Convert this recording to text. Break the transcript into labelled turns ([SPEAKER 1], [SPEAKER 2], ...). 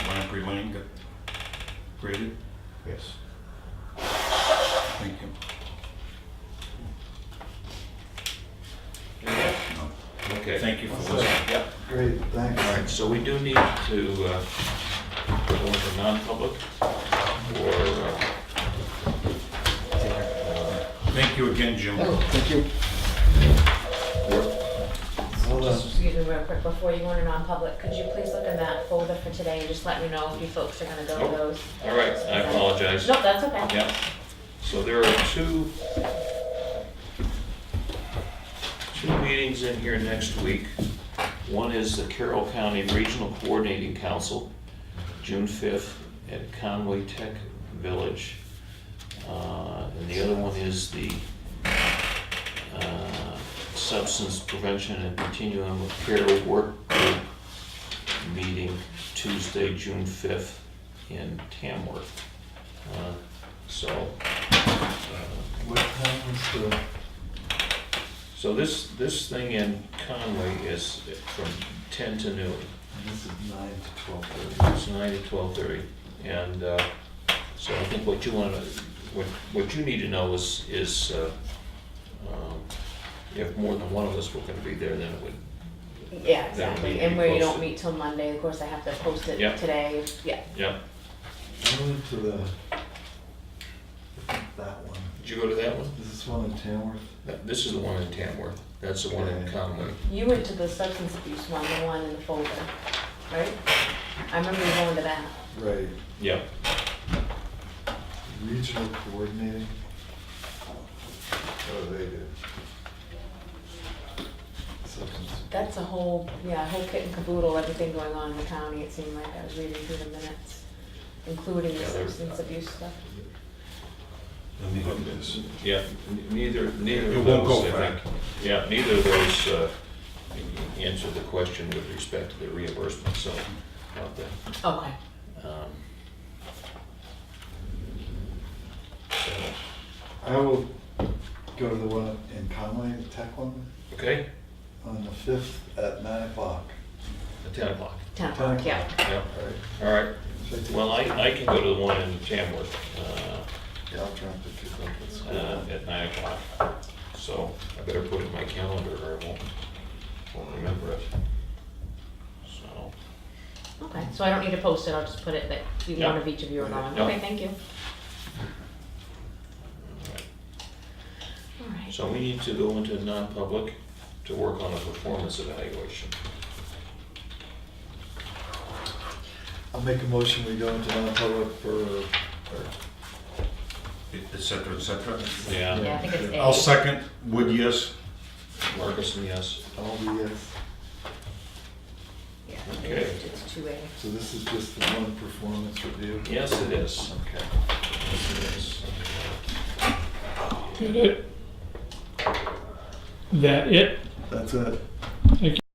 [SPEAKER 1] Victory Lane got graded?
[SPEAKER 2] Yes.
[SPEAKER 1] Thank you. No.
[SPEAKER 3] Okay.
[SPEAKER 1] Thank you for listening.
[SPEAKER 3] Yep.
[SPEAKER 2] Great, thanks.
[SPEAKER 3] All right, so we do need to uh, go into non-public for, uh,
[SPEAKER 1] Thank you again, Jim.
[SPEAKER 2] Thank you.
[SPEAKER 3] for-
[SPEAKER 2] Hold on.
[SPEAKER 4] Excuse me, real quick, before you go into non-public, could you please look in that folder for today and just let me know if you folks are gonna go
[SPEAKER 3] Oh,
[SPEAKER 4] to those?
[SPEAKER 3] all right, I apologize.
[SPEAKER 4] No, that's okay.
[SPEAKER 3] yeah. So there are two, two meetings in here next week. One is the Carroll County Regional Coordinating Council, June 5th at Conway Tech Village. Uh, And the other one is the uh, Substance Prevention and Continuum of Care Work Group meeting Tuesday, June 5th in Tamworth. Uh, So, uh,
[SPEAKER 2] What time was the?
[SPEAKER 3] so this, this thing in Conway is from 10 to noon.
[SPEAKER 2] This is nine to twelve thirty.
[SPEAKER 3] It's 9 to 12:30. And uh, so I think what you want to, what, what you need to know is, is uh, um, if more than one of us were going to be there, then it would,
[SPEAKER 4] Yeah,
[SPEAKER 3] That'll need
[SPEAKER 4] exactly,
[SPEAKER 3] to be
[SPEAKER 4] and where you don't
[SPEAKER 3] posted.
[SPEAKER 4] meet till Monday, of course, I have to post it
[SPEAKER 3] Yeah.
[SPEAKER 4] today, yeah.
[SPEAKER 3] yeah.
[SPEAKER 2] I went to the, that one.
[SPEAKER 3] Did you go to that one?
[SPEAKER 2] Is this one in Tamworth?
[SPEAKER 3] That- This is the one in Tamworth. That's the one in
[SPEAKER 2] Yeah.
[SPEAKER 3] Conway.
[SPEAKER 4] You went to the substance abuse one, the one in the folder, right? I remember you going to that.
[SPEAKER 2] Right.
[SPEAKER 3] Yeah.
[SPEAKER 2] Regional coordinating. Oh, they do. Substance.
[SPEAKER 4] That's a whole, yeah, a whole kit and caboodle, everything going on in the county, it seemed like, I was reading through the minutes, including the
[SPEAKER 3] Yeah, there's-
[SPEAKER 4] substance abuse stuff.
[SPEAKER 1] Let me hook this.
[SPEAKER 3] Yeah, n- neither, neither
[SPEAKER 1] It
[SPEAKER 3] of
[SPEAKER 1] won't
[SPEAKER 3] those,
[SPEAKER 1] go
[SPEAKER 3] I
[SPEAKER 1] back.
[SPEAKER 3] think. Yeah, neither of those uh, answer the question with respect to the reimbursement, so about that.
[SPEAKER 4] Okay.
[SPEAKER 3] um, so,
[SPEAKER 2] I will go to the one in Conway, the tech one,
[SPEAKER 3] Okay,
[SPEAKER 2] on the fifth at nine o'clock.
[SPEAKER 3] at 10 o'clock.
[SPEAKER 4] Ten o'clock, yeah.
[SPEAKER 3] Yeah,
[SPEAKER 2] All right.
[SPEAKER 3] all right.
[SPEAKER 2] Should I take-
[SPEAKER 3] Well, I, I can go to the one in Tamworth uh,
[SPEAKER 2] Yeah, I'll try and pick it up at school.
[SPEAKER 3] uh, at 9 o'clock. So I better put it in my calendar or I won't, won't remember it. So,
[SPEAKER 4] Okay, so I don't need to post it, I'll just put it that you,
[SPEAKER 3] Yeah.
[SPEAKER 4] one of each of you are going.
[SPEAKER 3] Yeah.
[SPEAKER 4] Okay, thank you.
[SPEAKER 3] all right.
[SPEAKER 4] All right.
[SPEAKER 3] So we need to go into non-public to work on a performance evaluation.
[SPEAKER 2] I'll make a motion, we go into non-public for, or,
[SPEAKER 1] Et cetera, et cetera.
[SPEAKER 4] Yeah, I think it's
[SPEAKER 1] I'll
[SPEAKER 4] A.
[SPEAKER 1] second. Would yes?
[SPEAKER 3] Marcus, yes.
[SPEAKER 2] all the uh, yes.
[SPEAKER 4] Yeah,
[SPEAKER 3] Okay.
[SPEAKER 4] It's two A.
[SPEAKER 2] So this is just the one performance review?
[SPEAKER 3] Yes, it is.
[SPEAKER 2] Okay.
[SPEAKER 3] Yes, it is.
[SPEAKER 5] That it?
[SPEAKER 2] That's it.